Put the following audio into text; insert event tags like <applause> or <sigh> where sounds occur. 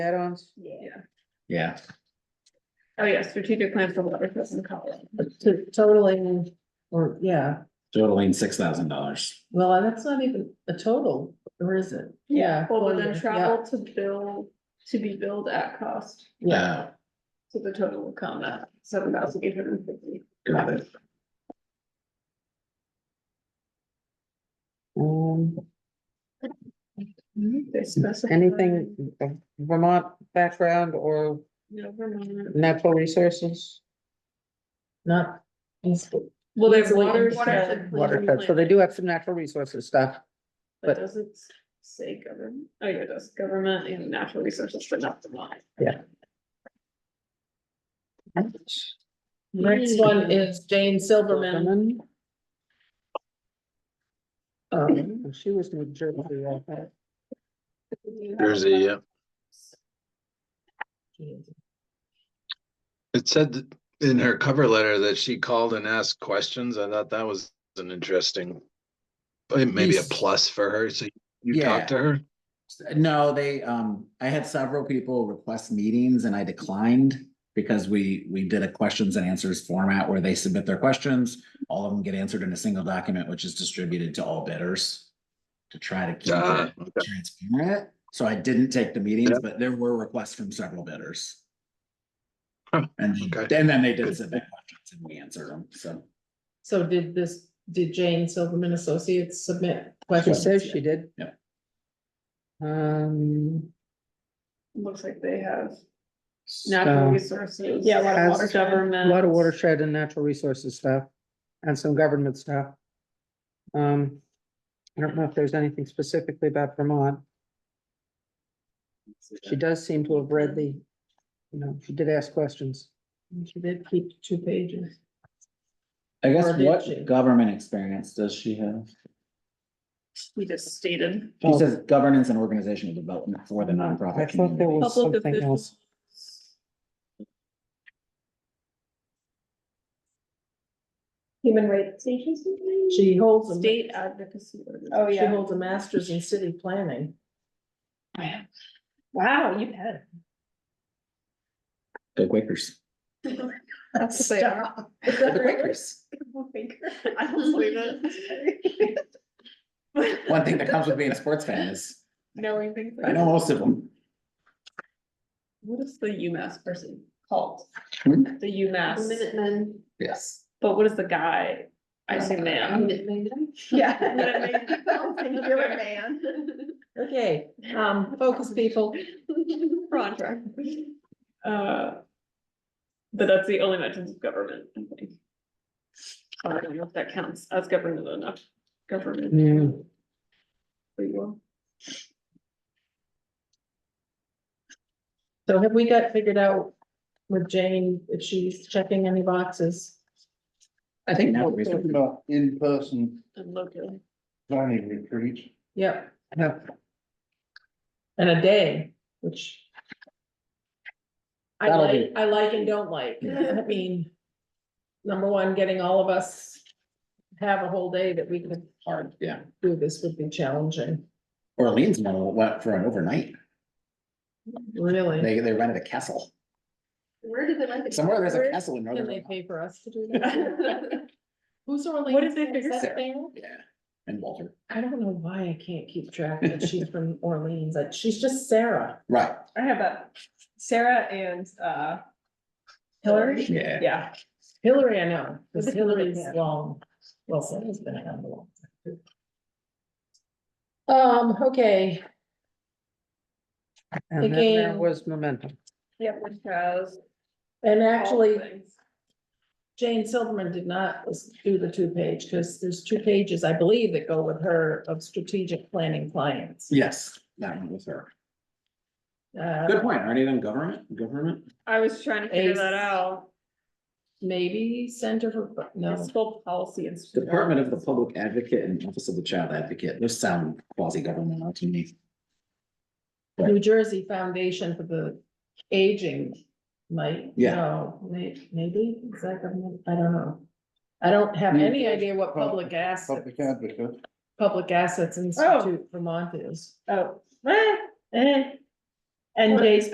add-ons. Yeah. Yeah, Oh, yeah, strategic plan for water and Colorado. To totaling, or, yeah, totaling six thousand dollars. well, and that's not even a total, or is it? Well, but for then the- travel to bill, to be billed at cost, Yeah, so the total will come at seven thousand eight hundred and fifty. Got it. yeah. Um, They specify. anything of Vermont background or Never mind. natural resources? Not. Well, there's Easily water. impacted Waterfed, so they do have some natural resources stuff. But does it say government? Oh, yeah, it does, government and natural resources, but not the mine. Next one is Jane Silverman. Silverman. Oh. Um, she was New Jersey, I think. Jersey, yeah. It said th- in her cover letter that she called and asked questions. I thought that was an interesting. uh, Maybe a Yes. plus for her, so you Yeah. talked to her? No, they, um, I had several people request meetings and I declined because we, we did a questions and answers format where they submit their questions. All of them get answered in a single document, which is distributed to all bidders to try to keep Ah, it okay. transparent. So I didn't take the meetings, Yeah. but there were requests from several bidders. Huh, And, they- okay. and then they did Good. submit questions and we answered them, so. So did this, did Jane Silverman Associates submit She questions? says she did. Yeah. Um. Looks like they have so- natural resources. Yeah, lot of water- A Government. lot of watershed and natural resources stuff and some government stuff. Um, I don't know if there's anything specifically about Vermont. She does seem to have read the, you know, she did ask questions. She did keep two pages. I Or guess did what she? government experience does she have? We just stated. She says governance and organizational development for the I nonprofit thought there community. was Public something else. Human rights agency? She holds, a- State advocacy. organization. oh, she holds a master's in city planning. Oh, Wow, you had. Go Quakers. <laughs> That's what they are. <laughs> Go Quakers. I don't believe it. <laughs> One thing that comes with being a sports fan is, Knowing things. like I know most of them. What is the UMass person called? Hmm? The UMass, Yes. but what is the guy? I say man. <laughs> Yeah. You're a man. Okay, <laughs> um, focus people. We're on track. Uh. But that's the only mentions of government, I think. I don't know if that counts as government enough, government Yeah, for you all. So have we got figured out with Jane if she's checking any boxes? I think. Now, We're talking about in-person And locally. planning retreats. Yep, Yeah, and a day, which. I That'll like, I like and don't like, Yeah. I mean. Number one, getting all of us have a whole day that we could hard Yeah, do this would be challenging, Orleans model went for an overnight. really. They, they rented a castle. Where did they like Somewhere there's a castle in Can northern. they Vermont. pay for us <laughs> to do that? <laughs> Who's Orleans? What did they Is figure, that Sarah? fair? Yeah, and Walter. I don't know why I can't keep track that she's from Orleans, that she's just Sarah. Right, I have a Sarah and uh Hillary? yeah. yeah, Hillary, I know, because Is it Hillary? Hillary's long, well, Sarah's been around a long time. Um, okay, and then there Again. was momentum. yeah, which has. and actually, Jane Silverman did not do the two page, because there's two pages, I believe, that go with her of strategic planning clients. Yes, that one was her. Uh, Good point. Aren't even government, government? I was trying to figure Ace. that out. maybe Center for, no, It's called policy and. Department of the Public Advocate and Office of the Child Advocate. Those sound quasi-governmental to me. New Jersey Foundation for the Aging might, Yeah. no, may- maybe, is that government? I don't know. I don't have New any Jersey idea what Pub- public asset, Public advocate. Public Assets Institute Vermont is. Oh, eh, eh. And Jay's